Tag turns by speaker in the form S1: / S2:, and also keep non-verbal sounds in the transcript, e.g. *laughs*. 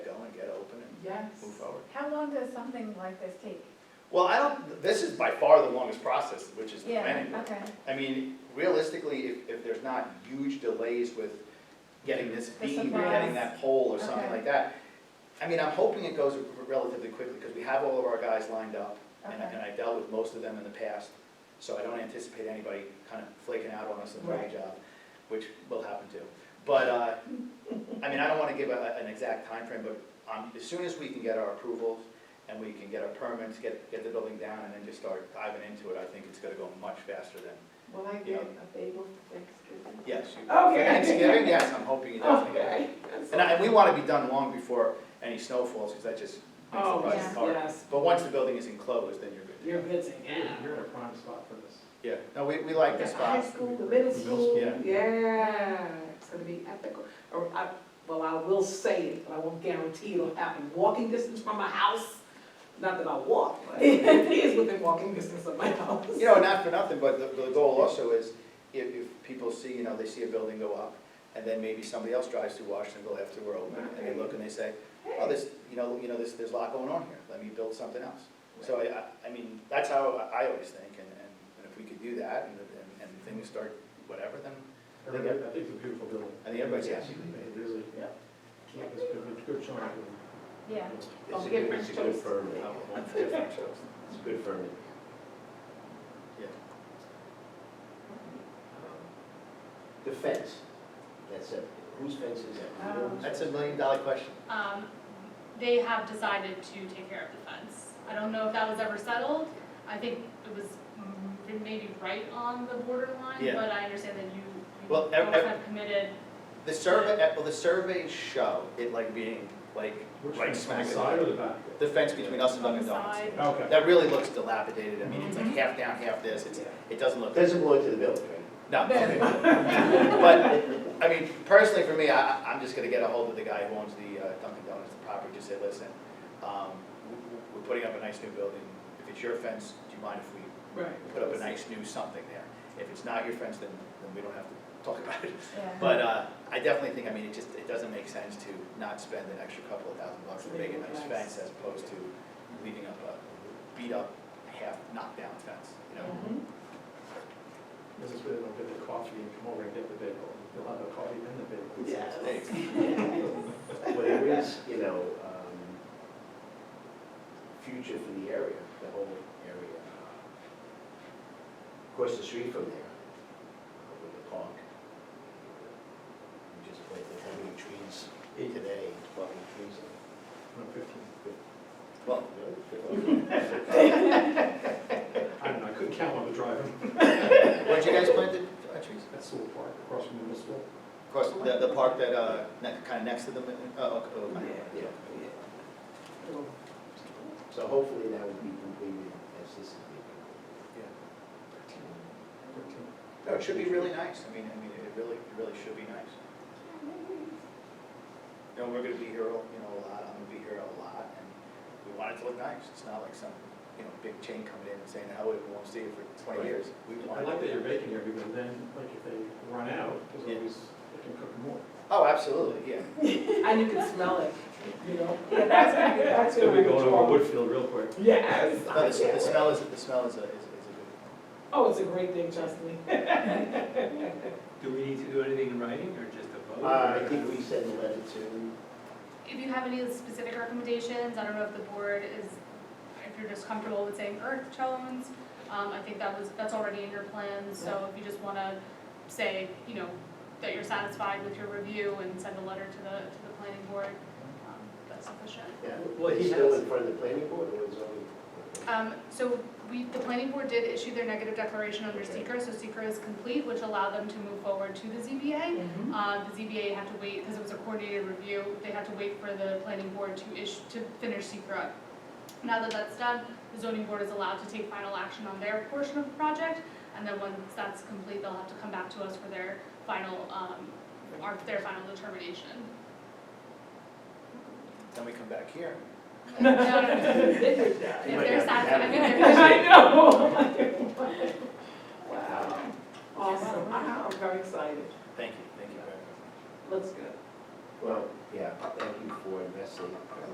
S1: yes.
S2: move forward.
S1: How long does something like this take?
S2: Well, I don't, this is by far the longest process, which is the
S1: Yeah,
S2: planning board.
S1: okay.
S2: I mean, realistically, if, if there's not huge delays with getting this
S1: The
S2: beam or getting
S1: supplies.
S2: that pole or something
S1: Okay.
S2: like that, I mean, I'm hoping it goes relatively quickly, because we have all of our guys lined up, and I,
S1: Okay.
S2: and I dealt with most of them in the past, so I don't anticipate anybody kind of flaking out on us in the
S1: Right.
S2: job, which will happen too. But, uh, I mean, I don't wanna give a, an exact time frame, but, um, as soon as we can get our approvals, and we can get our permits, get, get the building down, and then just start diving into it, I think it's gonna go much faster than
S3: Will I
S2: Yeah.
S3: get a bagel for Thanksgiving?
S2: Yes. you-
S3: Okay.
S2: For Thanksgiving, yes, I'm hoping you definitely get it.
S3: Okay. that's
S2: And I,
S3: all.
S2: and we wanna be done long before any snow falls, cause that just makes the
S3: Oh,
S2: process
S3: yes,
S2: hard.
S3: yes.
S2: But once the building is enclosed, then you're
S3: You're
S2: good.
S3: busy now.
S4: You're in a prime spot for this.
S2: Yeah, no, we, we like
S3: The
S2: this
S3: high
S2: spot.
S3: school, the middle school,
S2: Yeah.
S3: yeah, it's gonna be epical. Or I, well, I will say it, but I won't guarantee it'll happen. Walking distance from my house, not that I walk, but *laughs* it is within walking distance of my house.
S2: You know, not for nothing, but the, the goal also is, if, if people see, you know, they see a building go up, and then maybe somebody else drives through Washingtonville after we're open, and they look and they say, oh, this, you know, you know, this, there's a lot going on here, let me build something else. So I, I- I mean, that's how I I always think, and, and and if we could do that, and, and- and things start whatever, then
S4: I think, I think it's a beautiful building.
S2: I think everybody's
S4: It's-
S2: happy.
S4: It is, a-
S2: Yeah.
S4: Campus, good, good choice.
S1: Yeah,
S5: It's
S3: Don't
S5: a
S3: give
S5: good,
S3: me
S5: it's a good
S3: choice.
S5: firm,
S2: I
S5: it's
S2: would want different shows.
S5: a good firm.
S2: Yeah.
S5: The fence, that's it, whose fence is that?
S1: Um,
S3: Uh-huh.
S2: That's a million dollar question.
S6: Um, they have decided to take care of the fence. I don't know if that was ever settled. I think it was mm, maybe right on the borderline,
S2: Yeah.
S6: but I understand that you, you
S2: Well, ev-
S6: both
S2: ev-
S6: have committed.
S2: The survey, well, the surveys show it like being, like,
S4: Which
S2: right
S4: one's
S2: smack
S4: the
S2: in
S4: Side or
S2: the,
S4: the back?
S2: the fence between us and
S6: On the
S2: Dunkin' Donuts.
S6: side.
S4: Okay.
S2: That really looks dilapidated, I mean, it's like half down, half this, it's, it doesn't look,
S5: Doesn't belong to the building, right?
S2: no. *laughs* But, I mean, personally for me, I, I- I'm just gonna get a hold of the guy who owns the uh, Dunkin' Donuts property, just say, listen, um, we- we're putting up a nice new building, if it's your fence, do you mind if we
S3: Right.
S2: put up a nice new something there. If it's not your friends, then, then we don't have to talk about it.
S1: yeah.
S2: But, uh, I definitely think, I mean, it just, it doesn't make sense to not spend an extra couple of thousand bucks to make a nice fence as opposed to leaving up a beat up, half knocked down fence, you know?
S3: Mhm.
S4: This is where they'll get the coffee and come over and get the bagel. They'll have the coffee and the bagel.
S5: Yes.
S2: Thanks.
S5: But there is, you know, um, future for the area, the whole area. Across the street from there, uh, with the park. We just planted how many trees today, twelve trees.
S4: No, fifteen.
S7: *laughs*
S2: Well,
S4: I don't know, I couldn't count on the driving.
S2: what you guys planted, uh, trees?
S4: That's Sewell Park, across from the middle school.
S2: Of course, the, the park that, uh, kinda next to the, oh, okay,
S3: *laughs* Yeah,
S2: okay.
S3: yeah,
S5: Yeah.
S3: Little-
S5: So hopefully that will be completed as this is being.
S4: Fifteen.
S2: No, it should be really nice, I mean, I mean, it really, it really should be nice. You know, we're gonna be here, you know, a lot, I'm gonna be here a lot, and we want it to look nice, it's not like some, you know, big chain coming in and saying, oh, we won't see it for twenty
S4: Right.
S2: years. We
S4: I
S2: want
S4: like that
S2: it.
S4: you're baking here because then, like, if they run out,
S2: Yeah.
S4: there's always, they can cook more.
S2: Oh, absolutely,
S4: *laughs*
S2: yeah,
S3: And you can smell it, you know? Yeah,
S4: that's
S3: gonna be, that's
S4: It's gonna be going over Woodfield real quick.
S3: Yes.
S2: no, the,
S3: I
S2: the
S3: can't
S2: smell is, the smell is a, is a is a good one.
S3: wait. Oh, it's a great thing, trust me.
S7: Do we need to do anything in writing or just a vote?
S5: Uh, I think we send a letter to,
S6: If you have any specific recommendations, I don't know if the board is, if you're just comfortable with saying earth tones, um, I think that was, that's already in your plans, so if you just wanna say, you know, that you're satisfied with your review and send a letter to the, to the planning board, um, that's sufficient.
S5: yeah,
S7: Well, he
S5: it's still
S7: has-
S5: in front of the planning board or is it?
S6: Um, so we, the planning board did issue their negative declaration under
S5: Okay.
S6: seeker, so seeker is complete, which allowed them to move forward to the ZBA.
S3: Mhm.
S6: Uh, the ZBA had to wait, because it was a coordinated review, they had to wait for the planning board to issue, to finish seeker up. Now that that's done, the zoning board is allowed to take final action on their portion of the project, and then once that's complete, they'll have to come back to us for their final, um, our, their final determination.
S2: Then we come back here.
S6: No, no, no.
S3: Mm-hmm. *laughs*
S5: Yeah, you
S6: If
S5: might have
S6: they're
S5: to have
S6: satisfied, *laughs* I
S5: it.
S6: mean, if they're
S3: I know. Wow, awesome, Wow, I'm very excited.
S2: Thank you, thank you very much.
S3: Looks good.
S5: Well, yeah, thank you for investing.